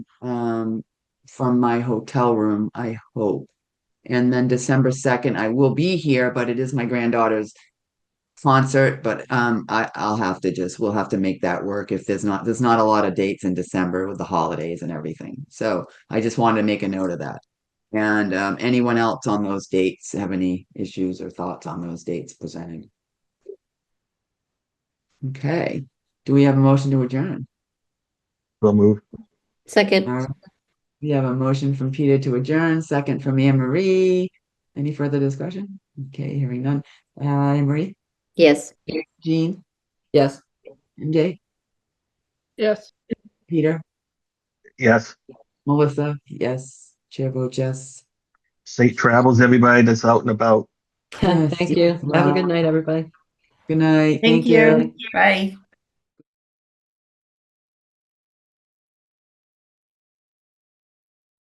um, from my hotel room, I hope. And then December second, I will be here, but it is my granddaughter's concert, but um, I, I'll have to just, we'll have to make that work if there's not, there's not a lot of dates in December with the holidays and everything. So I just wanted to make a note of that. And um, anyone else on those dates have any issues or thoughts on those dates presented? Okay, do we have a motion to adjourn? So moved. All Second, right. We have a motion from Peter to adjourn, second from Anne Marie. Any further discussion? Okay, hearing none. Uh, Anne Marie, yes. Jean, Yes. MJ, Yes. Peter, Yes. Melissa, yes, Chair votes yes. Safe travels, everybody that's out and about. Thank you. Have a good night, everybody. Good night. Thank you. Bye.